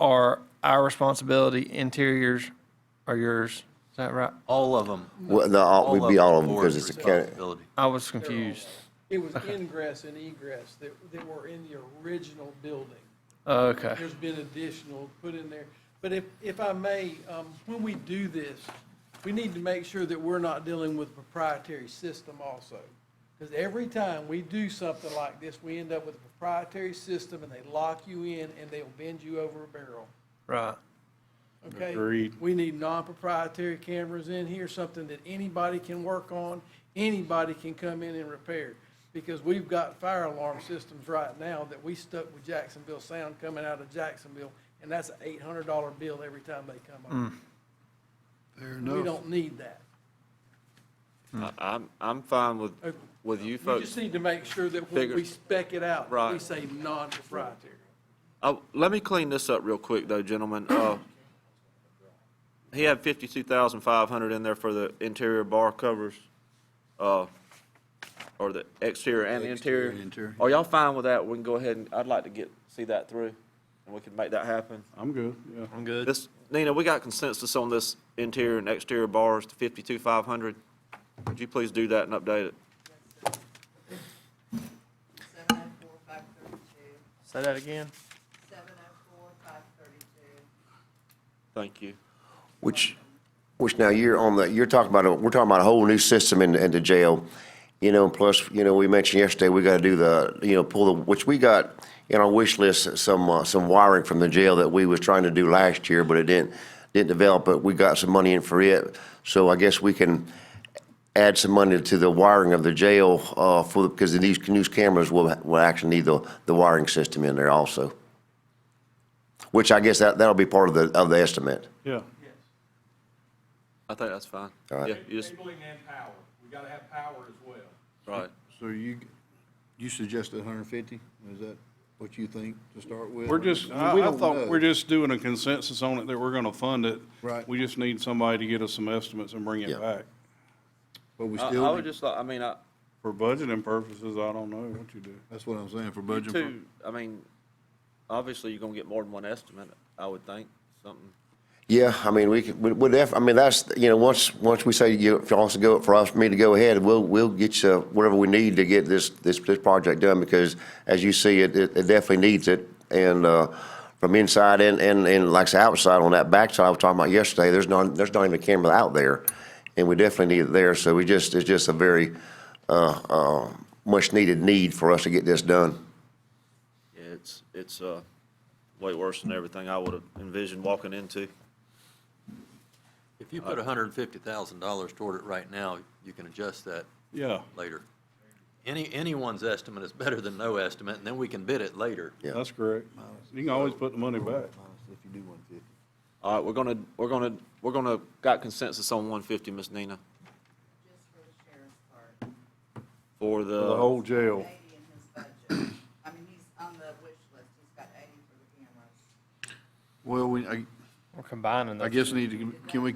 are our responsibility, interiors are yours. Is that right? All of them. Well, the, all- we'd be all of them because it's Board's a county. responsibility. I was confused. It was ingress and egress that, that were in the original building. Okay. There's been additional put in there. But if, if I may, um, when we do this, we need to make sure that we're not dealing with proprietary system also. Because every time we do something like this, we end up with a proprietary system and they lock you in and they'll bend you over a barrel. Right. Okay? Agreed. We need non-proprietary cameras in here, something that anybody can work on, anybody can come in and repair. Because we've got fire alarm systems right now that we stuck with Jacksonville Sound coming out of Jacksonville, and that's an eight hundred dollar bill every time they come on. Fair We enough. don't need that. I- I'm, I'm fine with, Okay. with We you just folks. need to make sure that when Figure- we spec it out, we Right. say non-proprietary. Oh, let me clean this up real quick though, gentlemen. Uh, he had fifty-two thousand five hundred in there for the interior bar covers, uh, or the exterior and the Exterior interior. and interior. Are y'all fine with that? We can go ahead and, I'd like to get, see that through and we can make that happen. I'm good, yeah. I'm good. This, Nina, we got consensus on this interior and exterior bars to fifty-two five hundred. Would you please do that and update it? Seven oh four, five thirty-two, Say that again. seven oh four, five thirty-two. Thank you. Which, which now you're on the, you're talking about, a we're talking about a whole new system in, in the jail. You know, plus, you know, we mentioned yesterday, we gotta do the, you know, pull the, which we got in our wish list, some, uh, some wiring from the jail that we was trying to do last year, but it didn't, didn't develop, but we got some money in for it. So I guess we can add some money to the wiring of the jail, uh, for, because these news cameras will, will actually need the, the wiring system in there also. Which I guess that, that'll be part of the, of the estimate. Yeah, I think that's fine. All right. Yeah, you just, Cabling and power, we gotta have power as well. right. So you, you suggested hundred and fifty? Is that what you think to start with? we're just, mean, I, we I don't thought know. we're just doing a consensus on it that we're gonna fund it. Right. We just need somebody to get us some estimates and bring Yeah. it back. But we I, I still, would just like, I mean, I, For budgeting purposes, I don't know what you do. that's what I'm saying, for you budget. pur- two, I mean, obviously you're gonna get more than one estimate, I would think, something. Yeah, I mean, we could, we- we'd def, I mean, that's, you know, once, once we say you, if y'all wants to go, for us, me to go ahead, we'll, we'll get you whatever we need to get this, this, this project done, because as you see, it, it it definitely needs it. And, uh, from inside and, and, and like I say, outside on that backside I was talking about yesterday, there's not, there's not even a camera out there. And we definitely need it there, so we just, it's just a very, uh, uh, much-needed need for us to get this done. Yeah, It's, it's, uh, way worse than everything I would have envisioned walking into. If you put hundred and fifty thousand dollars toward it right now, you can adjust that Yeah, later. Any, anyone's estimate is better than no estimate, and then we can bid it later. that's correct. You can always put the money back. If you do one fifty. All right, we're gonna, we're gonna, we're gonna, got consensus on one fifty, Miss Nina, just for the sheriff's part, for For The whole the, jail. eighty in his budget. I mean, he's on the wish list, he's got eighty for the cameras. Well, we, I, We're combining those. I guess need to, can we,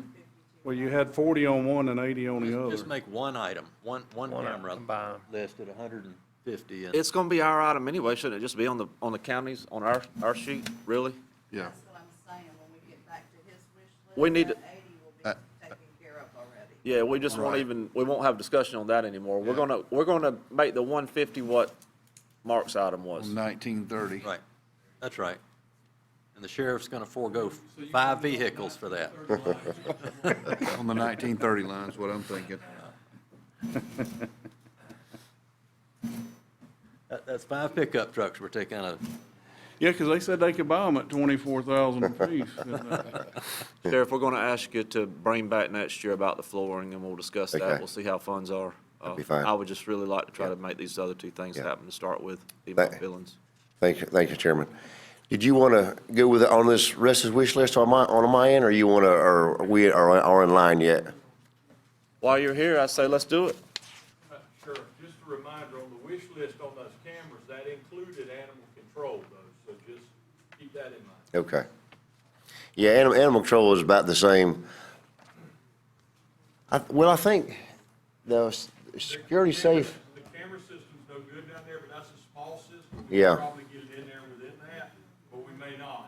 Well, you had forty on one and eighty on the Just- other. Just make one item, one, one One item camera combined. list at hundred and fifty, and it's gonna be our item anyway, shouldn't it just be on the, on the counties, on our, our sheet, really? yeah. That's what I'm saying, when we get back to his wish list, We need that eighty will be Uh, taken care of already. Yeah, we just won't Right. even, we won't have discussion on that anymore. We're Yeah. gonna, we're gonna make the one fifty what Mark's item was. Nineteen thirty. right, that's right. And the sheriff's gonna forego five vehicles for that. On the nineteen thirty line is what I'm thinking. That, that's five pickup trucks we're taking out of Yeah, because they said they could buy them at twenty-four thousand apiece. And, uh, Sheriff, we're gonna ask you to bring back next year about the flooring, and we'll discuss that. Okay. We'll see how funds are. Uh, be fine. I would just really like to try to make these other two things Yeah. happen to start with, the amount of Thank- billings. Thank you, thank you, Chairman. Did you want to go with, on this rest of wish list on my, on my end, or you want to, or we are, are in line yet? While you're here, I say, let's do it. Uh, Sheriff, just a reminder, on the wish list on those cameras, that included animal control though, so just keep that in mind. Okay. Yeah, animal, animal control is about the same. I, well, I think the s- security safe, The camera system's no good down there, but that's a small system. Yeah. We'll probably get it in there within that, but we may not.